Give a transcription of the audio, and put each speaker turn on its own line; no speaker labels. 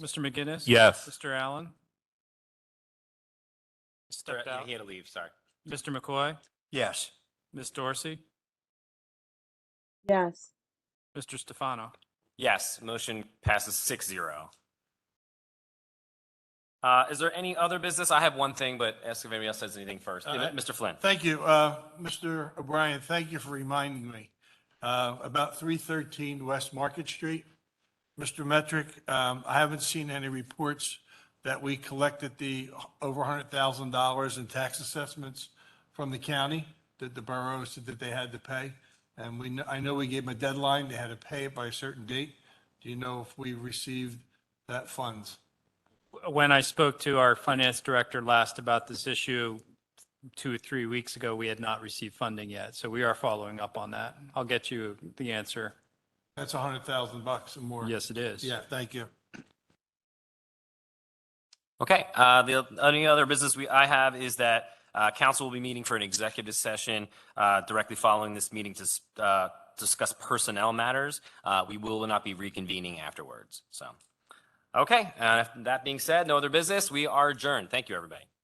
Mr. McGinnis?
Yes.
Mr. Allen? Stepped
Yeah,
out.
He had to leave, sorry.
Mr. McCoy?
Yes.
Ms. Dorsey?
yes,
Mr. Stefano?
Yes, motion passes six zero. Uh, is there any other business? I have one thing, but ask if anybody else has anything first.
Uh,
Yeah, Mr. Flynn?
Thank you, uh, Mr. O'Brien, thank you for reminding me. Uh, About 313 West Market Street, Mr. Metric, um, I haven't seen any reports that we collected the over $100,000 in tax assessments from the county that the borough said that they had to pay. And we, kn- I know we gave them a deadline, they had to pay it by a certain date. Do you know if we received that funds?
When I spoke to our finance director last about this issue two or three weeks ago, we had not received funding yet. So we are following up on that. I'll get you the answer.
That's 100,000 bucks or more.
Yes, it is.
Yeah, thank you.
Okay, uh, the only other business we, I have is that, uh, council will be meeting for an executive session, uh, directly following this meeting to, s- uh, discuss personnel matters. Uh, we will not be reconvening afterwards, so. Okay, uh, that being said, no other business. We are adjourned. Thank you, everybody.